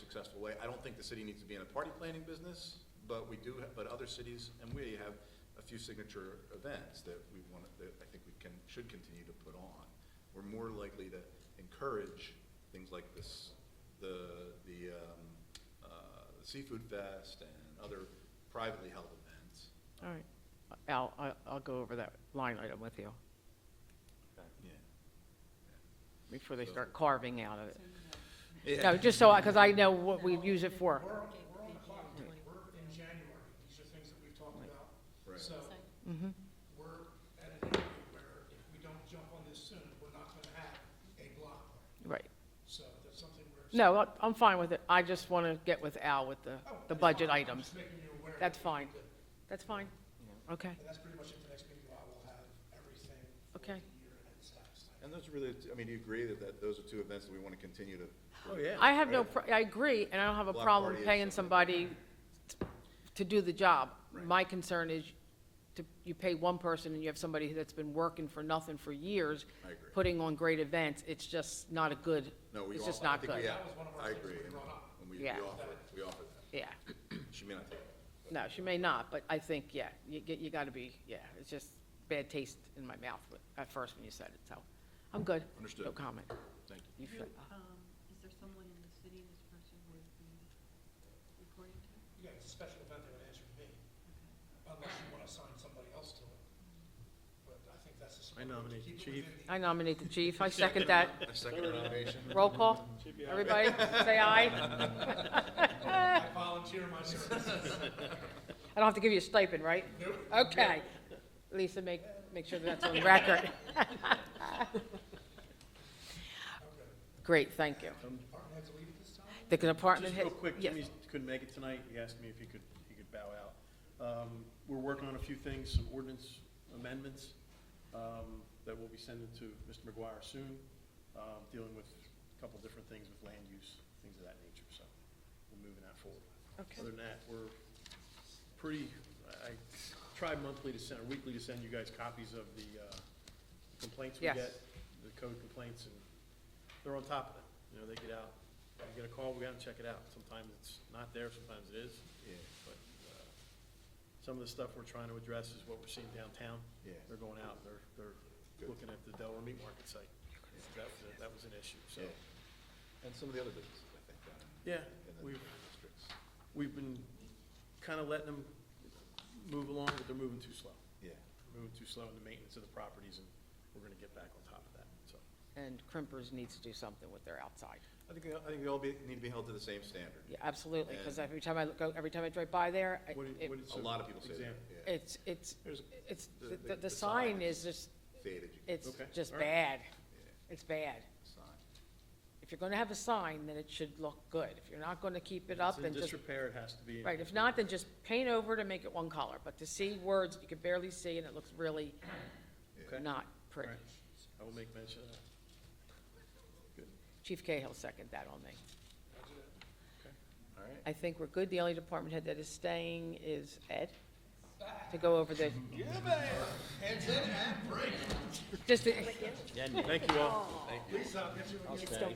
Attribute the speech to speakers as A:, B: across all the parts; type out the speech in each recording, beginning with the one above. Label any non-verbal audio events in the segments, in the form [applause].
A: successful way. I don't think the city needs to be in a party planning business, but we do, have- but other cities and we have a few signature events that we want, that I think we can, should continue to put on. We're more likely to encourage things like this, the, the um, uh, seafood fest and other privately held events.
B: All right. Al, I- I'll go over that line item with you
A: Yeah.
B: before they start carving out of it.
A: Yeah.
B: No, just so, because I know what we use it for.
C: We're, we're on the clock, we're in January, these are things that we've talked about.
A: Right.
C: So, we're at an area where if we don't jump on this soon, we're not gonna have a block party.
B: Right.
C: So that's something we're.
B: No, I- I'm fine with it. I just want to get with Al with the,
C: Oh,
B: the
C: that's
B: budget
C: fine. I'm
B: items.
C: just making you aware.
B: That's fine. That's fine. Okay.
C: And that's pretty much it, the next meeting, I will have everything. for
B: Okay.
C: the year and status.
A: And those are really, I mean, do you agree that, that those are two events that we want to continue to?
D: Oh, yeah.
B: I have no, pro- I agree, and I don't have a
A: Block
B: problem
A: party is
B: paying somebody t- to do the job.
A: Right.
B: My concern is to, you pay one person and you have somebody that's been working for nothing for years.
A: I agree.
B: Putting on great events, it's just not a good,
A: No, we all.
B: it's just
A: I
B: not
A: think we
B: good.
A: have-
C: That was one of our
A: I
C: things
A: agree.
C: we
A: and-
C: brought up.
A: And we, we
B: Yeah.
A: offered, we offered
B: Yeah,
A: that. She may not take it.
B: no, she may not, but I think, yeah, you, get- you gotta be, yeah, it's just bad taste in my mouth with- at first when you said it, so, I'm good. No
A: Understood.
B: comment.
A: Thank you.
B: You feel-
E: Um, is there someone in the city this person would be reporting to?
C: Yeah, it's a special event, they would answer to me, unless you wanna assign somebody else to it. But I think that's a.
D: I nominate
C: keep it
D: Chief.
C: within the-
B: I nominate the chief, I second
A: [laughs]
B: that.
A: A second nomination?
B: Roll call, everybody, say aye.
C: I volunteer my
D: [laughs]
C: services.
B: I don't have to give you a stipend, right? Okay. Lisa, make, make sure that's on record. [laughs] Great, thank you.
C: Department heads leave at this time?
B: The department
D: Just
B: head.
D: real quick,
B: yes.
D: Jimmy couldn't make it tonight, he asked me if he could, he could bow out. Um, We're working on a few things, some ordinance amendments um, that we'll be sending to Mr. McGuire soon, um, dealing with a couple different things with land use, things of that nature, so we're moving that forward.
B: Okay.
D: Other than that, we're pretty, I I try monthly to send, or weekly to send you guys copies of the uh, complaints we
B: Yes.
D: get, the code complaints, and they're on top of it. You know, they get out, we get a call, we gotta check it out. Sometimes it's not there, sometimes it is,
A: Yeah,
D: but, uh, some of the stuff we're trying to address is what we're seeing downtown.
A: Yeah.
D: They're going out, they're, they're
A: Good.
D: looking at the Delaware Meat Market site. That was, a- that was an issue, so.
A: yeah. And some of the other businesses, I think, down in-
D: Yeah,
A: in the
D: we've,
A: districts.
D: we've been kinda letting them move along, but they're moving too slow.
A: Yeah.
D: They're Moving too slow in the maintenance of the properties, and we're gonna get back on top of that, so.
B: And Crimpers needs to do something with their outside.
A: I think, they- I think they all be, need to be held to the same standard.
B: Yeah, absolutely, because every time I look, out- every time I drive by there, I-
D: What do you-
B: it-
D: what is
A: A
D: the
A: lot of people say that,
D: example?
A: yeah.
B: it's, it's,
D: There's-
B: it's,
A: The-
B: the-
A: the-
B: the,
A: the
B: the sign
A: sign
B: is just,
A: Faded, you can
B: it's
D: Okay,
B: just
D: all right.
B: bad. It's bad.
A: sign.
B: If you're gonna have a sign, then it should look good. If you're not gonna keep it up,
D: It's in
B: then just
D: disrepair, it has to be. in-
B: Right, if not, then just paint over to make it one color, but to see words, you can barely see, and it looks really
D: Okay.
B: not pretty.
D: Right. I will make mention of that.
B: Chief Cahill second that on me.
A: All right.
B: I think we're good, the only department head that is staying is Ed, to go over the. Just, to-
D: Thank you all.
A: uh,
C: Lisa, if you would.
B: it's still-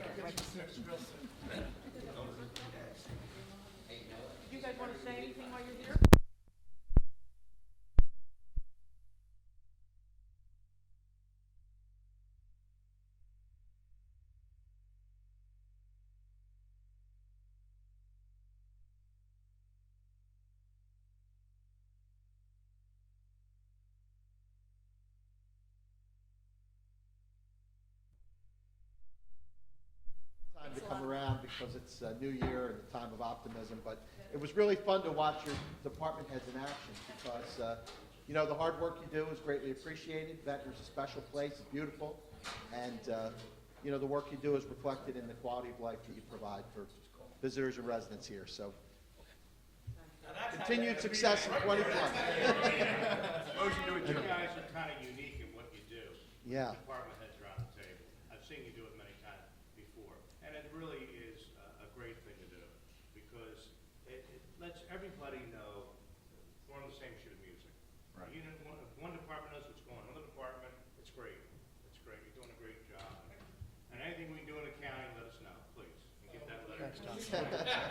B: you guys wanna say anything while you're here?
F: time to come around because it's a new year and a time of optimism, but it was really fun to watch your department heads in action because, uh, you know, the hard work you do is greatly appreciated. Ventnor's a special place, it's beautiful, and, uh, you know, the work you do is reflected in the quality of life that you provide for visitors and residents here, so. Continued success in 2020.
G: You guys are kind of unique in what you do.
F: Yeah.
G: Department heads around the table. I've seen you do it many times before, and it really is a, a great thing to do, because it, it lets everybody know we're on the same sheet of music.
A: Right.
G: You know, one, if one department knows what's going on, another department, it's great, it's great, you're doing a great job. And anything we can do in the county, let us know, please, and get that letter.